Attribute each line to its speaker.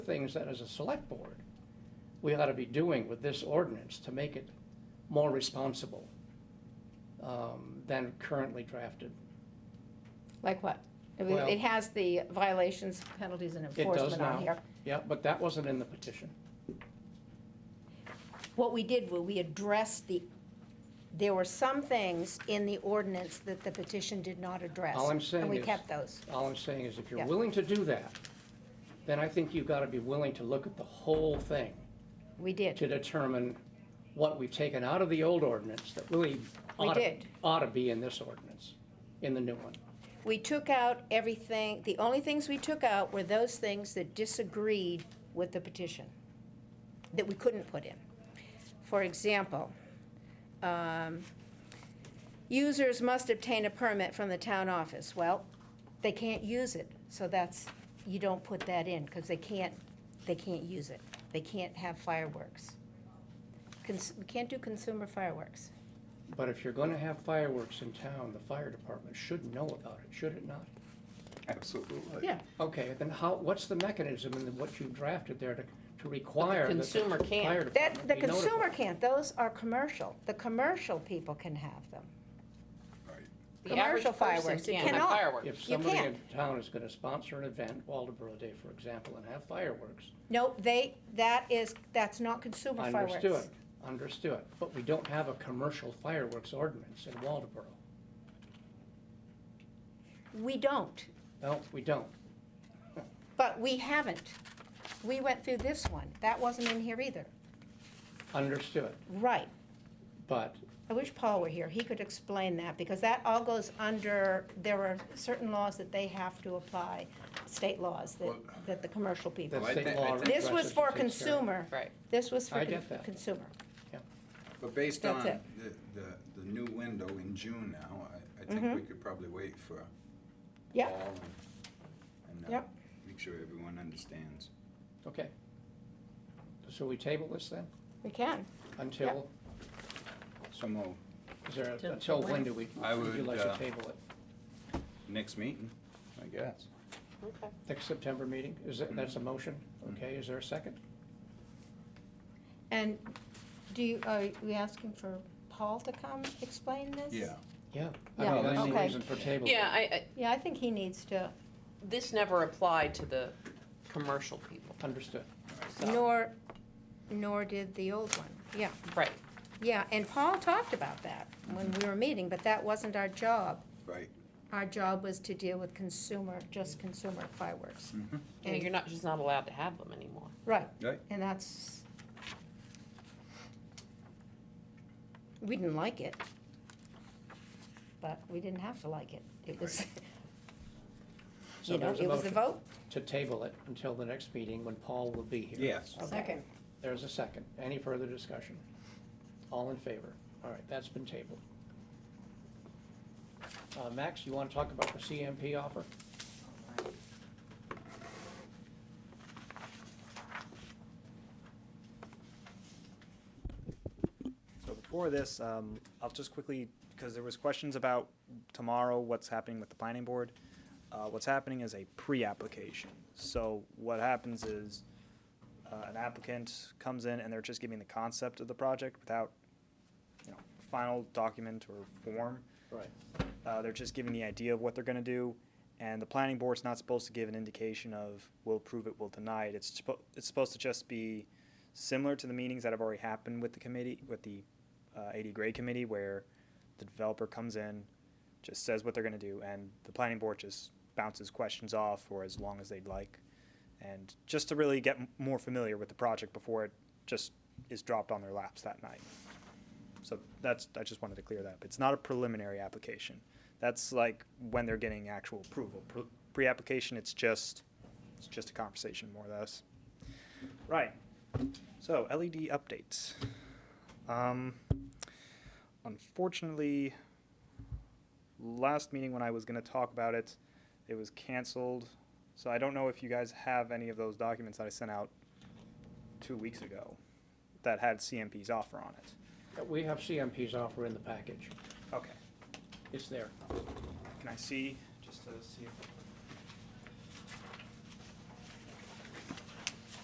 Speaker 1: things that as a select board, we ought to be doing with this ordinance to make it more responsible um, than currently drafted.
Speaker 2: Like what? It was-
Speaker 1: Well-
Speaker 2: It has the violations, penalties, and
Speaker 1: It does
Speaker 2: enforcement on
Speaker 1: now.
Speaker 2: here.
Speaker 1: Yeah, but that wasn't in the petition.
Speaker 2: What we did was we addressed the, there were some things in the ordinance that the petition did not address.
Speaker 1: All I'm saying
Speaker 2: And we
Speaker 1: is-
Speaker 2: kept those.
Speaker 1: All I'm saying is if you're
Speaker 2: Yeah.
Speaker 1: willing to do that, then I think you've got to be willing to look at the whole thing
Speaker 2: We did.
Speaker 1: to determine what we've taken out of the old ordinance that really
Speaker 2: We
Speaker 1: ought to,
Speaker 2: did.
Speaker 1: ought to be in this ordinance, in the new one.
Speaker 2: We took out everything, the only things we took out were those things that disagreed with the petition, that we couldn't put in. For example, um, users must obtain a permit from the town office. Well, they can't use it, so that's, you don't put that in, because they can't, they can't use it. They can't have fireworks. Cons- We can't do consumer fireworks.
Speaker 1: But if you're going to have fireworks in town, the fire department should know about it, should it not?
Speaker 3: Absolutely.
Speaker 4: Yeah,
Speaker 1: Okay, then how, what's the mechanism in the- what you drafted there to, to require? that the
Speaker 4: consumer can't.
Speaker 1: fire
Speaker 2: That,
Speaker 1: department
Speaker 2: the
Speaker 1: be
Speaker 2: consumer
Speaker 1: notified?
Speaker 2: can't, those are commercial, the commercial people can have them.
Speaker 4: the average
Speaker 2: Commercial
Speaker 4: person
Speaker 2: fireworks, you
Speaker 4: can't have
Speaker 2: cannot.
Speaker 4: fireworks.
Speaker 1: If
Speaker 2: You
Speaker 1: somebody in
Speaker 2: can't.
Speaker 1: town is gonna sponsor an event, Waldeboro Day, for example, and have fireworks,
Speaker 2: No, they, that is, that's not consumer fireworks.
Speaker 1: understood, understood. But we don't have a commercial fireworks ordinance in Waldeboro.
Speaker 2: We don't,
Speaker 1: No, we don't.
Speaker 2: but we haven't. We went through this one, that wasn't in here either.
Speaker 1: Understood,
Speaker 2: Right,
Speaker 1: but
Speaker 2: I wish Paul were here, he could explain that, because that all goes under, there are certain laws that they have to apply, state laws that, that the commercial people.
Speaker 1: that's
Speaker 3: Well, I
Speaker 1: state
Speaker 3: think- I
Speaker 1: law.
Speaker 3: think-
Speaker 2: This
Speaker 1: addresses
Speaker 2: was
Speaker 1: and
Speaker 2: for
Speaker 1: takes care of it.
Speaker 2: consumer.
Speaker 4: Right.
Speaker 2: This was for
Speaker 1: I
Speaker 2: con-
Speaker 1: get that.
Speaker 2: consumer.
Speaker 3: But based on
Speaker 2: That's
Speaker 3: the, the, the new window in June now, I, I think we could probably wait for
Speaker 2: Mm-hmm. Yep.
Speaker 3: fall and, and uh,
Speaker 2: Yep.
Speaker 3: make sure everyone understands.
Speaker 1: Okay. So we table this then,
Speaker 2: We can.
Speaker 1: until,
Speaker 3: So Mo,
Speaker 1: is there, a-
Speaker 4: Till-
Speaker 1: until when do we,
Speaker 3: I
Speaker 1: would you
Speaker 3: would,
Speaker 1: like to
Speaker 3: uh,
Speaker 1: table it?
Speaker 3: next meeting, I guess.
Speaker 4: Okay.
Speaker 1: Next September meeting, is that, that's a motion, okay, is there a second?
Speaker 2: And do you, are we asking for Paul to come explain this?
Speaker 1: Yeah. I
Speaker 2: Yeah.
Speaker 1: mean, that's the
Speaker 2: Okay.
Speaker 1: reason for table.
Speaker 4: Yeah, I, I,
Speaker 2: Yeah, I think he needs to,
Speaker 4: this never applied to the commercial people,
Speaker 1: Understood,
Speaker 4: so,
Speaker 2: nor, nor did the old one, yeah.
Speaker 4: right.
Speaker 2: Yeah, and Paul talked about that when we were meeting, but that wasn't our job.
Speaker 3: Right.
Speaker 2: Our job was to deal with consumer, just consumer fireworks.
Speaker 4: You know, you're not, just not allowed to have them anymore.
Speaker 2: Right.
Speaker 3: Right.
Speaker 2: And that's, we didn't like it, but we didn't have to like it. It was,
Speaker 1: So
Speaker 2: you know,
Speaker 1: there's a
Speaker 2: it was the
Speaker 1: motion.
Speaker 2: vote.
Speaker 1: to table it until the next meeting when Paul will be here.
Speaker 3: Yes.
Speaker 2: Second.
Speaker 1: There's a second, any further discussion? All in favor, all right, that's been tabled. Uh, Max, you wanna talk about the CMP offer?
Speaker 5: So before this, um, I'll just quickly, because there was questions about tomorrow, what's happening with the planning board. Uh, what's happening is a pre-application. So what happens is, uh, an applicant comes in and they're just giving the concept of the project without, you know, final document or form.
Speaker 1: Right.
Speaker 5: Uh, they're just giving the idea of what they're gonna do, and the planning board's not supposed to give an indication of, we'll approve it, we'll deny it. It's supposed, it's supposed to just be similar to the meetings that have already happened with the committee, with the uh, AD grade committee, where the developer comes in, just says what they're gonna do, and the planning board just bounces questions off for as long as they'd like. And just to really get m- more familiar with the project before it just is dropped on their laps that night. So that's, I just wanted to clear that up. It's not a preliminary application. That's like when they're getting actual approval. Pre- Pre-application, it's just, it's just a conversation more or less. Right. So LED updates. Um, unfortunately, last meeting when I was gonna talk about it, it was canceled. So I don't know if you guys have any of those documents that I sent out two weeks ago that had CMP's offer on it.
Speaker 1: Uh, We have CMP's offer in the package,
Speaker 5: Okay,
Speaker 1: it's there.
Speaker 5: can I see, just to see if